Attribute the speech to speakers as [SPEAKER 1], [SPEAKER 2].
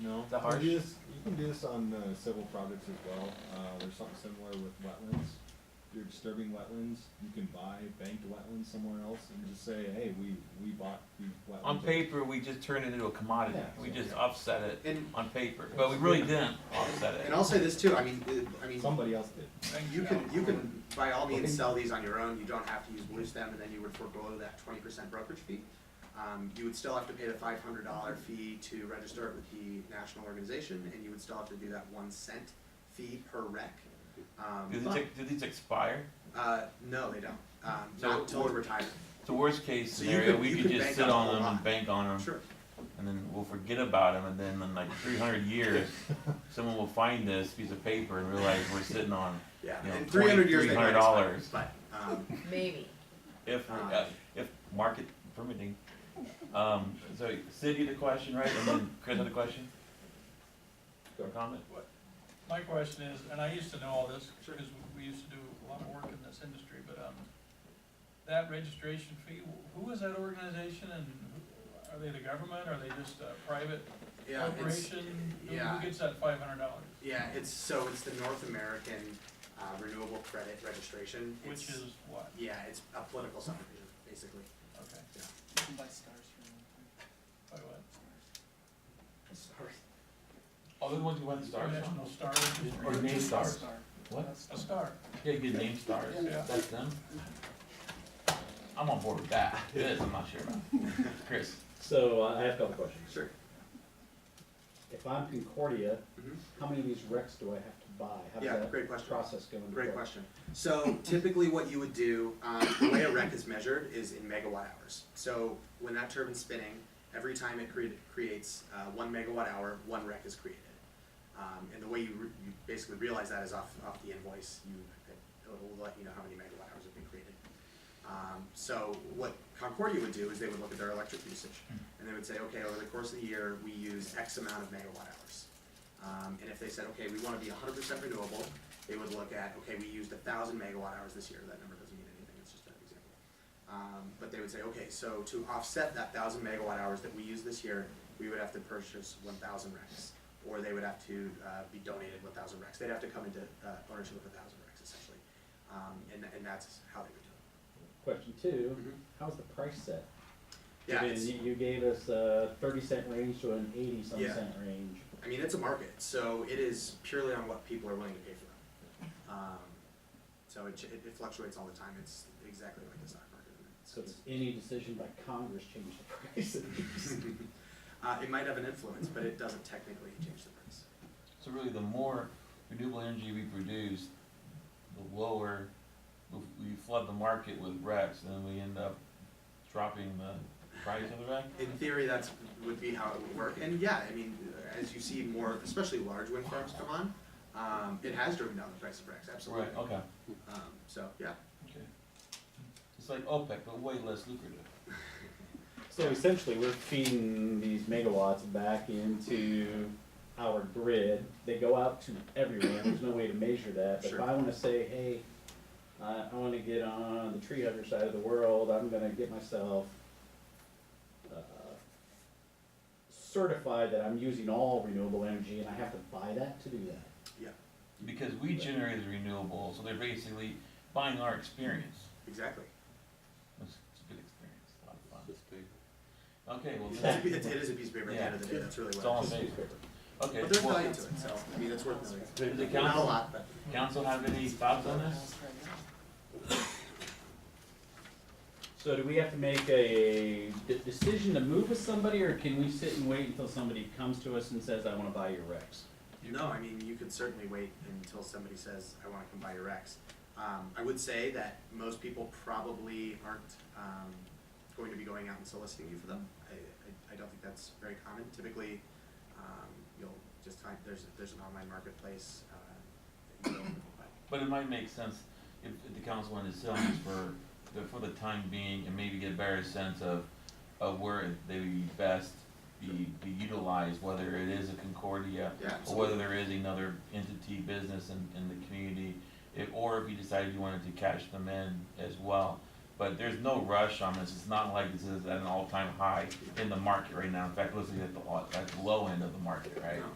[SPEAKER 1] No.
[SPEAKER 2] Is that
[SPEAKER 3] You
[SPEAKER 2] harsh?
[SPEAKER 3] can do this, you can do this on, uh, civil projects as well, uh, there's something similar with wetlands. If you're disturbing wetlands, you can buy banked wetlands somewhere else and just say, hey, we, we bought these wetlands.
[SPEAKER 2] On paper, we just turned it into a commodity.
[SPEAKER 3] Yeah.
[SPEAKER 2] We just offset it
[SPEAKER 4] And,
[SPEAKER 2] on paper, but we really didn't offset
[SPEAKER 4] and
[SPEAKER 2] it.
[SPEAKER 4] I'll say this too, I mean, uh, I mean,
[SPEAKER 3] Somebody else did.
[SPEAKER 4] you can, you can by all means sell these on your own, you don't have to use Blue Stem, and then you would forego that twenty percent brokerage fee. Um, you would still have to pay the five hundred dollar fee to register it with the national organization, and you would still have to do that one cent fee per rec. Um,
[SPEAKER 2] Do these,
[SPEAKER 4] but,
[SPEAKER 2] ex- do these expire?
[SPEAKER 4] uh, no, they don't, um,
[SPEAKER 2] So
[SPEAKER 4] not until
[SPEAKER 2] what-
[SPEAKER 4] retirement,
[SPEAKER 2] So worst case
[SPEAKER 4] So you
[SPEAKER 2] scenario,
[SPEAKER 4] could-
[SPEAKER 2] we
[SPEAKER 4] you
[SPEAKER 2] could
[SPEAKER 4] could
[SPEAKER 2] just
[SPEAKER 4] bank
[SPEAKER 2] sit
[SPEAKER 4] on
[SPEAKER 2] on
[SPEAKER 4] the
[SPEAKER 2] them and
[SPEAKER 4] lot.
[SPEAKER 2] bank on them,
[SPEAKER 4] sure.
[SPEAKER 2] and then we'll forget about them, and then in like three hundred years, someone will find this piece of paper and realize we're sitting on,
[SPEAKER 4] Yeah,
[SPEAKER 2] you know,
[SPEAKER 4] in three
[SPEAKER 2] twenty,
[SPEAKER 4] hundred years,
[SPEAKER 2] three
[SPEAKER 4] they
[SPEAKER 2] hundred
[SPEAKER 4] might expire,
[SPEAKER 2] dollars.
[SPEAKER 4] but, um,
[SPEAKER 5] Maybe.
[SPEAKER 2] If,
[SPEAKER 4] Uh-huh.
[SPEAKER 2] uh, if market permitting. Um, so Sid, you had a question, right? And then Chris had a question? Or comment?
[SPEAKER 6] My question is, and I used to know all this, because we used to do a lot of work in this industry, but, um, that registration fee, who is that organization and who- are they the government, are they just a private
[SPEAKER 4] yeah, it's,
[SPEAKER 6] corporation? Who-
[SPEAKER 4] yeah.
[SPEAKER 6] Who gets that five hundred dollars?
[SPEAKER 4] yeah, it's, so it's the North American, uh, Renewable Credit Registration,
[SPEAKER 6] Which
[SPEAKER 4] It's-
[SPEAKER 6] is what,
[SPEAKER 4] Yeah, it's a political subdivision, basically.
[SPEAKER 6] okay,
[SPEAKER 7] You can buy stars from them.
[SPEAKER 6] by what?
[SPEAKER 4] Sorry.
[SPEAKER 2] All the ones who went stars.
[SPEAKER 6] National Star Registry.
[SPEAKER 2] Or name stars.
[SPEAKER 7] Star.
[SPEAKER 2] What?
[SPEAKER 6] A star,
[SPEAKER 2] Yeah, good name stars.
[SPEAKER 6] Yeah.
[SPEAKER 2] That's them. I'm on board with that. This, I'm not sure about. Chris,
[SPEAKER 1] So uh, I I have a couple questions.
[SPEAKER 4] Sure.
[SPEAKER 1] If I'm Concordia,
[SPEAKER 4] Mhm.
[SPEAKER 1] how many of these wrecks do I have to buy? How
[SPEAKER 4] Yeah,
[SPEAKER 1] does that
[SPEAKER 4] great question.
[SPEAKER 1] process go into
[SPEAKER 4] Great
[SPEAKER 1] play?
[SPEAKER 4] question. So typically what you would do, um, the way a rec is measured is in megawatt hours. So when that turbine's spinning, every time it cre- creates, uh, one megawatt hour, one rec is created. Um, and the way you, re- you basically realize that is off, off the invoice, you, it'll let you know how many megawatt hours have been created. Um, so what Concordia would do is they would look at their electric usage, and they would say, okay, over the course of the year, we use X amount of megawatt hours. Um, and if they said, okay, we wanna be hundred percent renewable, they would look at, okay, we used a thousand megawatt hours this year, that number doesn't mean anything, it's just an example. Um, but they would say, okay, so to offset that thousand megawatt hours that we used this year, we would have to purchase one thousand recs. Or they would have to, uh, be donated one thousand recs, they'd have to come into, uh, ownership of a thousand recs essentially. Um, and, and that's how they would do it.
[SPEAKER 1] Question two,
[SPEAKER 4] Mhm.
[SPEAKER 1] how's the price set?
[SPEAKER 4] Yeah,
[SPEAKER 1] I mean,
[SPEAKER 4] it's-
[SPEAKER 1] you, you gave us a thirty cent range to an eighty some
[SPEAKER 4] Yeah.
[SPEAKER 1] cent range.
[SPEAKER 4] I mean, it's a market, so it is purely on what people are willing to pay for them. Um, so it, ch- it it fluctuates all the time. It's exactly like the stock market. in that
[SPEAKER 1] So does
[SPEAKER 4] sense.
[SPEAKER 1] any decision by Congress change the price?
[SPEAKER 4] Uh, it might have an influence, but it doesn't technically change the price.
[SPEAKER 2] so really the more renewable energy we produce, the lower, we- we flood the market with RECs, and then we end up dropping the price of the REC?
[SPEAKER 4] In theory, that's would be how it would work. And yeah, I mean, as you see more, especially large wind farms come on, um, it has driven down the price of RECs, absolutely.
[SPEAKER 2] Right, okay.
[SPEAKER 4] Um, so yeah,
[SPEAKER 2] Okay. It's like OPEC, but way less lucrative.
[SPEAKER 1] So essentially, we're feeding these megawatts back into our grid. They go out to everywhere. There's no way to measure that. But if
[SPEAKER 4] Sure.
[SPEAKER 1] I wanna say, hey, I, I wanna get on the tree hugger side of the world, I'm gonna get myself uh, certified that I'm using all renewable energy and I have to buy that to do that.
[SPEAKER 2] Because we generate the renewable, so they're basically buying our experience.
[SPEAKER 4] exactly.
[SPEAKER 2] It's it's a good experience, a lot of fun. Okay, well,
[SPEAKER 4] It's a,
[SPEAKER 2] that's-
[SPEAKER 4] pi- it is a piece of paper at the end of the day. That's really
[SPEAKER 2] it's
[SPEAKER 4] what.
[SPEAKER 2] all
[SPEAKER 4] it
[SPEAKER 2] in
[SPEAKER 4] is.
[SPEAKER 2] favor. Okay,
[SPEAKER 4] But there's
[SPEAKER 2] well,
[SPEAKER 4] value to it, so I mean, it's worth knowing.
[SPEAKER 2] does the
[SPEAKER 4] Not a
[SPEAKER 2] council,
[SPEAKER 4] lot, but.
[SPEAKER 2] council have any thoughts on this?
[SPEAKER 1] So do we have to make a de- decision to move with somebody or can we sit and wait until somebody comes to us and says, I wanna buy your Rex?
[SPEAKER 4] No, I mean, you could certainly wait until somebody says, I wanna come buy your X. Um, I would say that most people probably aren't, um, going to be going out and soliciting you for them. I, I, I don't think that's very common. Typically, um, you'll just find, there's, there's an online marketplace, uh, that you can buy.
[SPEAKER 2] But it might make sense if, if the council wanted to sell this for, the- for the time being and maybe get a better sense of, of where they would be best be, be utilized, whether it is a Concordia
[SPEAKER 4] Yeah,
[SPEAKER 2] or
[SPEAKER 4] so,
[SPEAKER 2] whether there is another entity, business in, in the community, if, or if you decided you wanted to cash them in as well. But there's no rush on this, it's not like this is at an all-time high in the market right now, in fact, it looks like at the, all- at the low end of the market, right?
[SPEAKER 4] No.